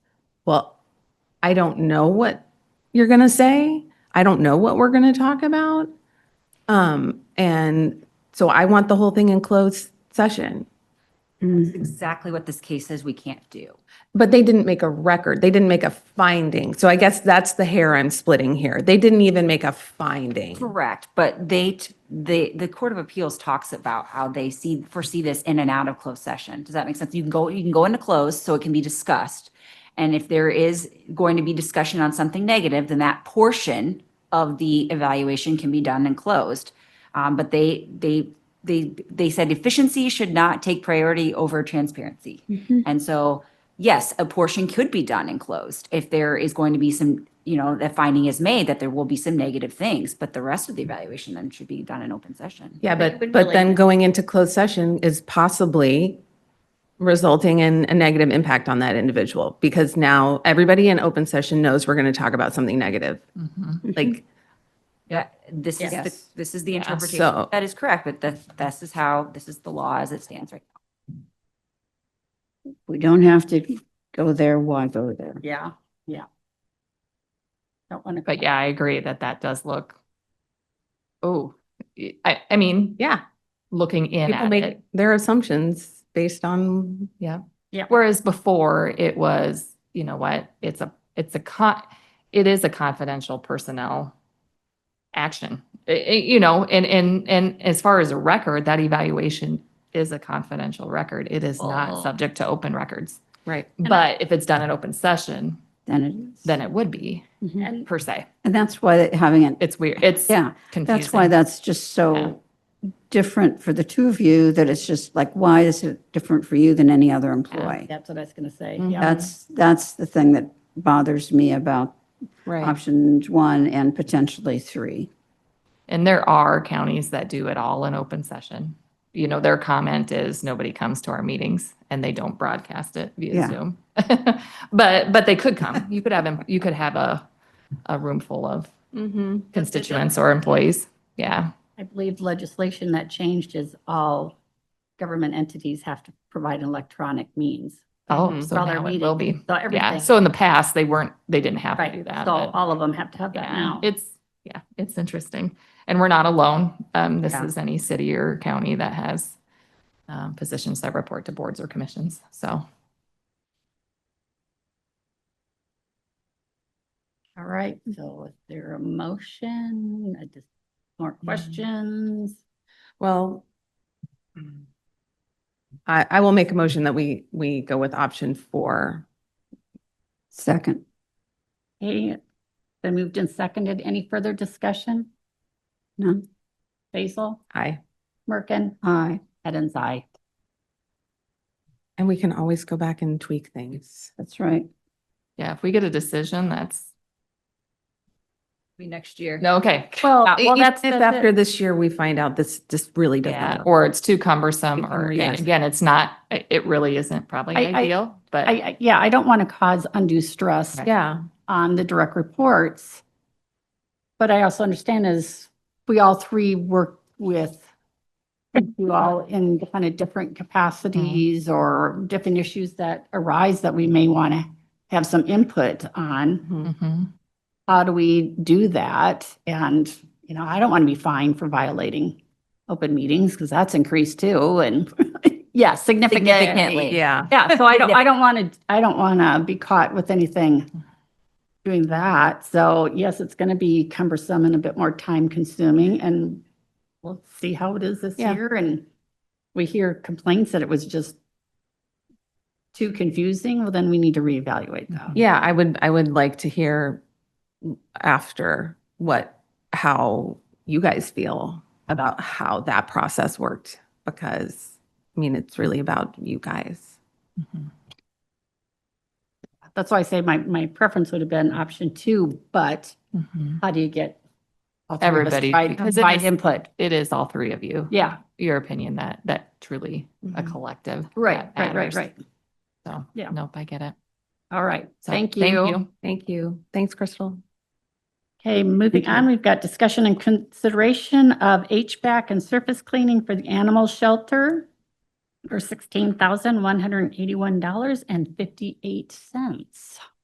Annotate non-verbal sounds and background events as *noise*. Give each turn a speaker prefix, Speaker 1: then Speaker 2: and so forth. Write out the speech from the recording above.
Speaker 1: well, I don't know what you're going to say. I don't know what we're going to talk about. Um, and so I want the whole thing in closed session.
Speaker 2: That's exactly what this case says we can't do.
Speaker 1: But they didn't make a record. They didn't make a finding. So I guess that's the hair I'm splitting here. They didn't even make a finding.
Speaker 2: Correct, but they, t- the, the Court of Appeals talks about how they see, foresee this in and out of closed session. Does that make sense? You can go, you can go into closed, so it can be discussed. And if there is going to be discussion on something negative, then that portion of the evaluation can be done and closed. Um, but they, they, they, they said efficiency should not take priority over transparency. And so, yes, a portion could be done and closed if there is going to be some, you know, that finding is made that there will be some negative things, but the rest of the evaluation then should be done in open session.
Speaker 1: Yeah, but, but then going into closed session is possibly resulting in a negative impact on that individual because now everybody in open session knows we're going to talk about something negative.
Speaker 3: Mm-hmm.
Speaker 1: Like,
Speaker 2: Yeah. This is, the
Speaker 4: Yes.
Speaker 2: this is the interpretation.
Speaker 1: so-
Speaker 2: That is correct, but that, this is how, this is the law as it stands right
Speaker 3: We don't have to go there, why go there?
Speaker 4: Yeah,
Speaker 3: Don't want to.
Speaker 4: but yeah, I agree that that does look. Oh, I, I mean,
Speaker 1: yeah,
Speaker 4: looking in
Speaker 1: people
Speaker 4: at
Speaker 1: make
Speaker 4: it.
Speaker 1: their assumptions based on,
Speaker 4: Whereas before it was, you know what, it's a, it's a con, it is a confidential personnel action. I- I- you know, and, and, and as far as a record, that evaluation is a confidential record. It is
Speaker 3: Oh.
Speaker 4: not subject to open records.
Speaker 1: right.
Speaker 4: But if it's done in open session,
Speaker 3: Then it is.
Speaker 4: then it would be
Speaker 3: Mhm.
Speaker 5: And
Speaker 4: per se.
Speaker 3: And that's why that having it,
Speaker 4: It's weird. It's
Speaker 3: yeah,
Speaker 4: confusing.
Speaker 3: that's why that's just
Speaker 4: Yeah.
Speaker 3: so different for the two of you, that it's just like, why is it different for you than any other employee?
Speaker 5: That's what I was going to say.
Speaker 4: Mhm.
Speaker 5: Yeah.
Speaker 3: That's, that's the thing that bothers me about
Speaker 1: Right.
Speaker 3: options one and potentially three.
Speaker 4: And there are counties that do it all in open session. You know, their comment is nobody comes to our meetings and they don't broadcast it via
Speaker 3: Yeah.
Speaker 4: Zoom. *laughs* But, but they could come. You could have, em- you could have a, a room full of
Speaker 1: Mm-hmm.
Speaker 4: constituents or employees. Yeah.
Speaker 5: I believe legislation that changed is all government entities have to provide electronic means.
Speaker 4: Oh,
Speaker 1: Mhm.
Speaker 4: so
Speaker 5: Mm-hmm. While they're
Speaker 4: now it will be.
Speaker 5: So
Speaker 4: Yeah.
Speaker 5: everything.
Speaker 4: So in the past, they weren't, they didn't have to do
Speaker 5: Right.
Speaker 4: that.
Speaker 5: So
Speaker 4: but-
Speaker 5: all of them have to have that
Speaker 4: Yeah,
Speaker 5: now.
Speaker 4: it's, yeah, it's interesting. And we're not alone. Um, this
Speaker 5: Yeah.
Speaker 4: is any city or county that has um, positions that report to boards or commissions. So
Speaker 5: All right. So is there a motion? I just- More
Speaker 4: Mm.
Speaker 5: questions?
Speaker 1: Well, I, I will make a motion that we, we go with option four.
Speaker 3: Second,
Speaker 5: Hey, been moved and seconded. Any further discussion?
Speaker 3: no,
Speaker 5: Basil,
Speaker 1: Aye.
Speaker 5: Merkin,
Speaker 3: aye.
Speaker 5: Edens, aye.
Speaker 1: And we can always go back and tweak things.
Speaker 3: That's right.
Speaker 4: Yeah, if we get a decision, that's,
Speaker 2: now. Next year.
Speaker 4: no, okay.
Speaker 1: Well,
Speaker 4: Uh,
Speaker 1: if
Speaker 4: that's-
Speaker 1: if
Speaker 4: that's it.
Speaker 1: after this year, we find out this just really
Speaker 4: Yeah,
Speaker 1: doesn't. work.
Speaker 4: or it's too cumbersome, or
Speaker 1: Cumbersome, yes.
Speaker 4: again, it's not, it it really isn't probably
Speaker 5: I- I-
Speaker 4: ideal,
Speaker 5: I,
Speaker 4: but
Speaker 5: I- yeah, I don't want to cause undue stress
Speaker 4: Right.
Speaker 1: Yeah,
Speaker 5: on the direct reports. But I also understand is we all three work with you all in kind of different capacities or different issues that arise that we may want to have some input on.
Speaker 1: Mhm.
Speaker 4: Mhm.
Speaker 5: How do we do that? And, you know, I don't want to be fined for violating open meetings because that's increased too. And *laughs* yeah, significant.
Speaker 2: Significantly.
Speaker 1: yeah.
Speaker 5: Yeah, so I don't, I don't want to, I don't want to be caught with anything doing that. So yes, it's going to be cumbersome and a bit more time consuming and we'll see how it is this
Speaker 1: Yeah.
Speaker 5: year. And we hear complaints that it was just too confusing. Well, then we need to reevaluate though.
Speaker 1: Yeah, I would, I would like to hear after what, how you guys feel about how that process worked, because, I mean, it's really about you guys.
Speaker 4: Mhm.
Speaker 5: That's why I say my, my preference would have been option two, but
Speaker 4: Mhm.
Speaker 5: how do you get all three of us
Speaker 4: Everybody,
Speaker 5: to provide-
Speaker 4: because it
Speaker 5: Provide
Speaker 4: is-
Speaker 5: input.
Speaker 4: it is all three of you,
Speaker 5: Yeah, Mm-hmm.
Speaker 4: your opinion that, that truly a
Speaker 1: Mhm.
Speaker 4: collective.
Speaker 5: right,
Speaker 4: that
Speaker 5: right, right,
Speaker 4: matters.
Speaker 5: right.
Speaker 4: So,
Speaker 5: Yeah.
Speaker 4: nope, I get it.
Speaker 5: All right.
Speaker 4: So,
Speaker 5: Thank you.
Speaker 1: Thank you. Thanks, Crystal.
Speaker 5: Okay, moving on, we've got discussion and consideration of HVAC and surface cleaning for the animal shelter for sixteen thousand one hundred and eighty-one dollars and fifty-eight cents.